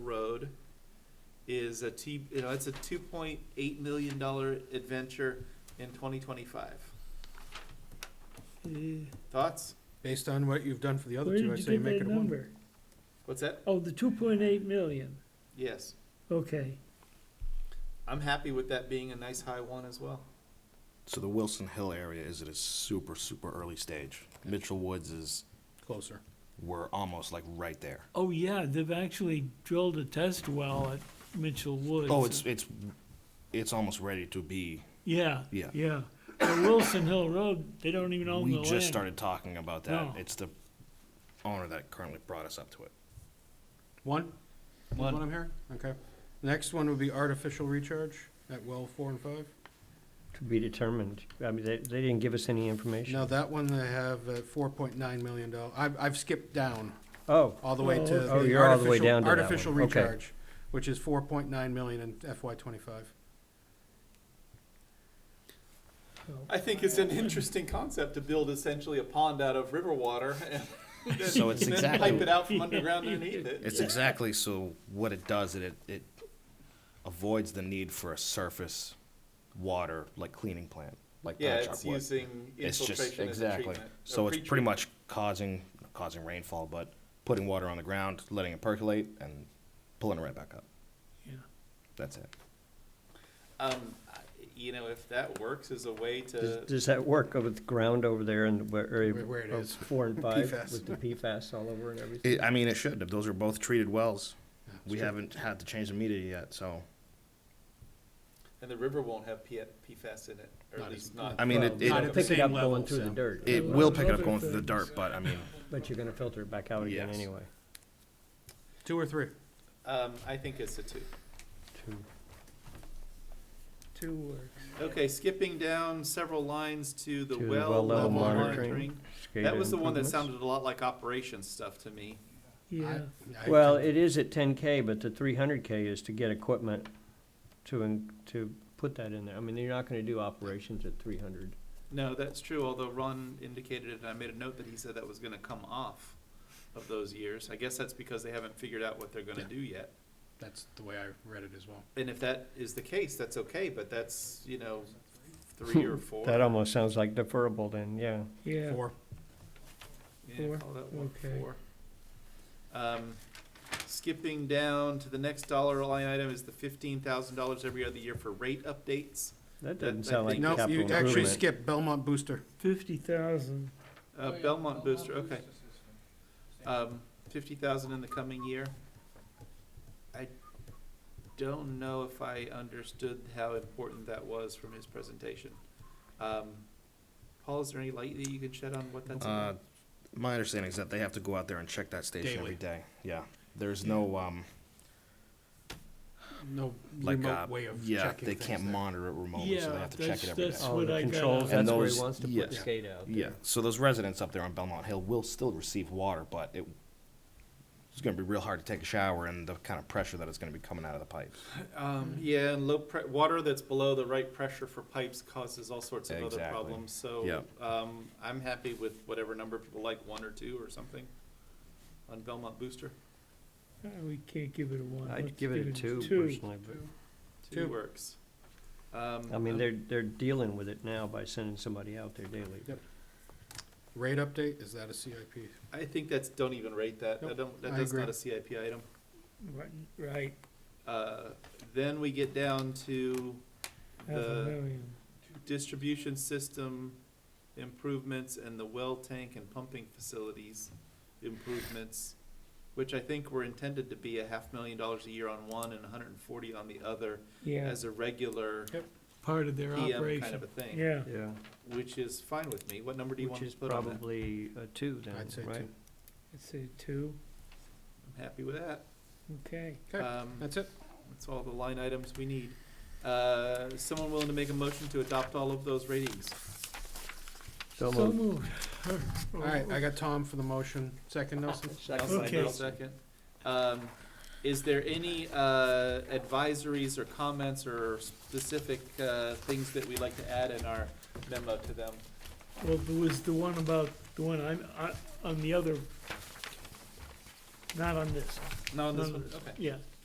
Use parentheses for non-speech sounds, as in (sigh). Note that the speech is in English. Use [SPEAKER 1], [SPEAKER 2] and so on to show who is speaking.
[SPEAKER 1] Road is a T, you know, it's a two point eight million dollar adventure in twenty twenty-five. Thoughts?
[SPEAKER 2] Based on what you've done for the other
[SPEAKER 3] Where
[SPEAKER 2] two, I
[SPEAKER 3] did
[SPEAKER 2] say
[SPEAKER 3] you
[SPEAKER 2] make
[SPEAKER 3] get
[SPEAKER 2] it
[SPEAKER 3] that
[SPEAKER 2] a one.
[SPEAKER 3] number?
[SPEAKER 1] What's that?
[SPEAKER 3] Oh, the two point eight million,
[SPEAKER 1] Yes,
[SPEAKER 3] okay.
[SPEAKER 1] I'm happy with that being a nice high one as well.
[SPEAKER 4] So the Wilson Hill area is at a super, super early stage. Mitchell Woods is,
[SPEAKER 2] Closer.
[SPEAKER 4] we're almost like right there.
[SPEAKER 3] Oh, yeah, they've actually drilled a test well at Mitchell Woods.
[SPEAKER 4] Oh, it's, it's, it's almost ready to be.
[SPEAKER 3] Yeah.
[SPEAKER 4] Yeah.
[SPEAKER 3] Yeah. But Wilson Hill Road, they don't even own the
[SPEAKER 4] We
[SPEAKER 3] land.
[SPEAKER 4] just started talking about that.
[SPEAKER 3] No.
[SPEAKER 4] It's the owner that currently brought us up to it.
[SPEAKER 2] One? Is What I'm hearing? Okay. Next one would be artificial recharge at well four and five.
[SPEAKER 5] To be determined. I mean, they, they didn't give us any information.
[SPEAKER 2] Now, that one they have at four point nine million dollars. I've, I've skipped down
[SPEAKER 5] Oh,
[SPEAKER 2] all the way to
[SPEAKER 3] Oh,
[SPEAKER 2] the
[SPEAKER 5] Oh, you're all the way
[SPEAKER 2] artificial-
[SPEAKER 5] down to that one.
[SPEAKER 2] Artificial
[SPEAKER 5] Okay.
[SPEAKER 2] recharge, which is four point nine million in FY twenty-five.
[SPEAKER 1] I think it's an interesting concept to build essentially a pond out of river water and
[SPEAKER 4] (laughs)
[SPEAKER 1] then-
[SPEAKER 4] So it's
[SPEAKER 1] then
[SPEAKER 4] exactly-
[SPEAKER 1] pipe it out from
[SPEAKER 4] (laughs)
[SPEAKER 1] underground underneath it.
[SPEAKER 4] It's exactly so what it does, it, it avoids the need for a surface water, like cleaning plant, like
[SPEAKER 1] Yeah,
[SPEAKER 4] Patchogue
[SPEAKER 1] it's
[SPEAKER 4] would.
[SPEAKER 1] using
[SPEAKER 4] It's just,
[SPEAKER 1] infiltration as a
[SPEAKER 4] exactly.
[SPEAKER 1] treatment.
[SPEAKER 4] So
[SPEAKER 1] or
[SPEAKER 4] it's pretty
[SPEAKER 1] pre-treatment.
[SPEAKER 4] much causing, not causing rainfall, but putting water on the ground, letting it percolate and pulling it right back up.
[SPEAKER 3] Yeah.
[SPEAKER 4] That's it.
[SPEAKER 1] Um, I- you know, if that works as a way
[SPEAKER 5] does,
[SPEAKER 1] to,
[SPEAKER 5] does that work with the ground over there in the area?
[SPEAKER 2] Where- where it
[SPEAKER 5] of
[SPEAKER 2] is.
[SPEAKER 5] Four and five
[SPEAKER 2] PFAS.
[SPEAKER 5] with the PFAS all over and everything?
[SPEAKER 4] It, I mean, it should. Those are both treated wells.
[SPEAKER 2] Yeah, it's
[SPEAKER 4] We
[SPEAKER 2] true.
[SPEAKER 4] haven't had to change the meter yet, so,
[SPEAKER 1] and the river won't have P- PFAS in it, or
[SPEAKER 2] Not
[SPEAKER 1] at least
[SPEAKER 2] as-
[SPEAKER 1] not.
[SPEAKER 4] I mean, it-
[SPEAKER 5] Well,
[SPEAKER 4] it-
[SPEAKER 2] Not
[SPEAKER 5] You'll
[SPEAKER 2] at
[SPEAKER 5] pick
[SPEAKER 2] the
[SPEAKER 5] it up
[SPEAKER 2] same level,
[SPEAKER 5] going through the
[SPEAKER 2] so-
[SPEAKER 5] dirt.
[SPEAKER 4] it
[SPEAKER 3] Well,
[SPEAKER 4] will pick it up
[SPEAKER 3] other
[SPEAKER 4] going through the
[SPEAKER 3] things-
[SPEAKER 4] dirt, but I mean,
[SPEAKER 5] But you're gonna filter it back out again
[SPEAKER 4] Yes.
[SPEAKER 5] anyway.
[SPEAKER 2] Two or three?
[SPEAKER 1] Um, I think it's a two.
[SPEAKER 3] Two works.
[SPEAKER 1] Okay, skipping down several lines to the
[SPEAKER 5] To the
[SPEAKER 1] well
[SPEAKER 5] well level
[SPEAKER 1] level
[SPEAKER 2] monitoring.
[SPEAKER 1] monitoring. That was the one that sounded a lot like operations stuff to me.
[SPEAKER 3] Yeah,
[SPEAKER 2] I- I-
[SPEAKER 5] Well, it is at ten K, but the three hundred K is to get equipment to, in- to put that in there. I mean, you're not gonna do operations at three hundred.
[SPEAKER 1] No, that's true, although Ron indicated it, and I made a note that he said that was gonna come off of those years. I guess that's because they haven't figured out what they're gonna
[SPEAKER 2] Yeah.
[SPEAKER 1] do yet.
[SPEAKER 2] That's the way I read it as well.
[SPEAKER 1] And if that is the case, that's okay, but that's, you know, three
[SPEAKER 5] (laughs)
[SPEAKER 1] or four.
[SPEAKER 5] That almost sounds like deferrable then, yeah.
[SPEAKER 3] yeah.
[SPEAKER 2] Four.
[SPEAKER 1] Yeah,
[SPEAKER 3] Four?
[SPEAKER 1] call that one
[SPEAKER 3] Okay.
[SPEAKER 1] four. Um, skipping down to the next dollar line item is the fifteen thousand dollars every other year for rate updates.
[SPEAKER 5] That
[SPEAKER 1] I
[SPEAKER 5] doesn't sound like
[SPEAKER 1] think
[SPEAKER 2] No,
[SPEAKER 5] capital
[SPEAKER 2] you
[SPEAKER 5] improvement.
[SPEAKER 2] actually skipped Belmont Booster.
[SPEAKER 3] Fifty thousand,
[SPEAKER 1] Uh, Belmont Booster, okay. Um, fifty thousand in the coming year. I don't know if I understood how important that was from his presentation. Um, Paul, is there any light that you can shed on what that's
[SPEAKER 4] uh,
[SPEAKER 1] about?
[SPEAKER 4] my understanding is that they have to go out there and check that station
[SPEAKER 2] Daily.
[SPEAKER 4] every day. Yeah. There's no, um,
[SPEAKER 2] No
[SPEAKER 4] like, uh,
[SPEAKER 2] remote way of checking
[SPEAKER 4] yeah, they
[SPEAKER 2] things
[SPEAKER 4] can't
[SPEAKER 2] there.
[SPEAKER 4] monitor it remotely, so they
[SPEAKER 3] Yeah,
[SPEAKER 4] have to check it every day.
[SPEAKER 3] that's
[SPEAKER 5] Oh,
[SPEAKER 3] what
[SPEAKER 5] the
[SPEAKER 3] I got
[SPEAKER 5] controls,
[SPEAKER 3] out.
[SPEAKER 5] that's
[SPEAKER 4] And
[SPEAKER 5] where he
[SPEAKER 4] those-
[SPEAKER 5] wants to
[SPEAKER 4] yeah.
[SPEAKER 5] put skate out.
[SPEAKER 4] Yeah, so those residents up there on Belmont Hill will still receive water, but it, it's gonna be real hard to take a shower and the kind of pressure that is gonna be coming out of the pipes.
[SPEAKER 2] Mm-hmm.
[SPEAKER 1] Um, yeah, and low pre- water that's below the right pressure for pipes causes all sorts of other
[SPEAKER 4] Exactly.
[SPEAKER 1] problems, so,
[SPEAKER 4] Yep.
[SPEAKER 1] um, I'm happy with whatever number people like, one or two or something on Belmont Booster.
[SPEAKER 3] Uh, we can't give it a one.
[SPEAKER 5] I'd
[SPEAKER 3] Let's
[SPEAKER 5] give it a two personally, but,
[SPEAKER 1] Two
[SPEAKER 2] Two.
[SPEAKER 1] works. Um,
[SPEAKER 5] I mean, they're, they're dealing with it now by sending somebody out there daily.
[SPEAKER 2] Yep. Rate update, is that a CIP?
[SPEAKER 1] I think that's, don't even rate that, I
[SPEAKER 2] Nope,
[SPEAKER 1] don't, that-
[SPEAKER 2] I
[SPEAKER 1] that's
[SPEAKER 2] agree.
[SPEAKER 1] not a CIP item.
[SPEAKER 3] Right, Right,
[SPEAKER 1] Uh, then we get down to
[SPEAKER 3] half a
[SPEAKER 1] the
[SPEAKER 3] million.
[SPEAKER 1] distribution system improvements and the well tank and pumping facilities improvements, which I think were intended to be a half million dollars a year on one and a hundred and forty on the other
[SPEAKER 3] Yeah,
[SPEAKER 1] as a regular
[SPEAKER 3] part of their
[SPEAKER 1] PM kind of
[SPEAKER 3] operation.
[SPEAKER 1] a thing,
[SPEAKER 3] Yeah,
[SPEAKER 5] Yeah.
[SPEAKER 1] which is fine with me. What number do you want
[SPEAKER 5] Which
[SPEAKER 1] to
[SPEAKER 5] is
[SPEAKER 1] put on that?
[SPEAKER 5] probably a two then,
[SPEAKER 2] I'd say
[SPEAKER 5] right?
[SPEAKER 2] two.
[SPEAKER 3] let's say two,
[SPEAKER 1] I'm happy with that.
[SPEAKER 3] okay.
[SPEAKER 2] Okay,
[SPEAKER 1] Um,
[SPEAKER 2] That's it?
[SPEAKER 1] That's all the line items we need. Uh, someone willing to make a motion to adopt all of those ratings?
[SPEAKER 5] So moved.
[SPEAKER 3] moved. (laughs)
[SPEAKER 2] All right, I got Tom for the motion. Second, Nelson?
[SPEAKER 1] Nelson,
[SPEAKER 3] Okay.
[SPEAKER 1] I'll Second. Um, is there any, uh, advisories or comments or specific, uh, things that we'd like to add in our memo to them?
[SPEAKER 3] Well, there was the one about, the one I'm, I, on the other not on this,
[SPEAKER 1] No, this
[SPEAKER 3] No,
[SPEAKER 1] one,
[SPEAKER 3] no.
[SPEAKER 1] okay.
[SPEAKER 3] yeah.